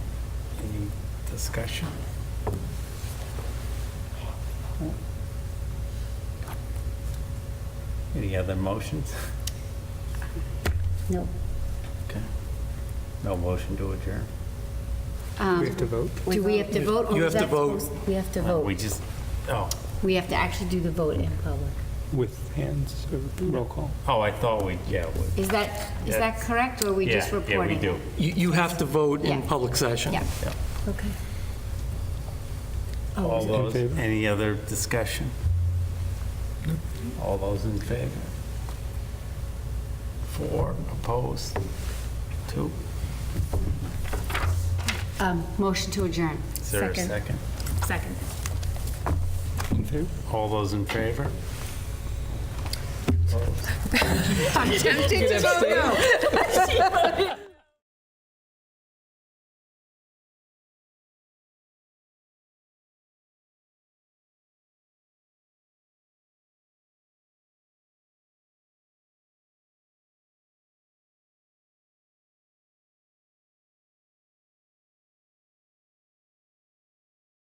discussion? Any other motions? No. Okay. No motion to adjourn? We have to vote? Do we have to vote? or You is have to that vote. Uh, supposed- We have to We vote. just, oh, We have to actually do the vote in public. With hands, or roll call? oh, I thought we, yeah, we- Is that, is that That's- correct, or are we yeah, just yeah, we reporting? do. You, you have to vote in Yeah. public session. Yeah, Yeah. okay. Oh, All is it- those, favor? any other discussion? All those in favor? Four, opposed, two. um, motion to adjourn. Is there a Second. second? Second. In favor? All those in favor? I'm tempted to vote no.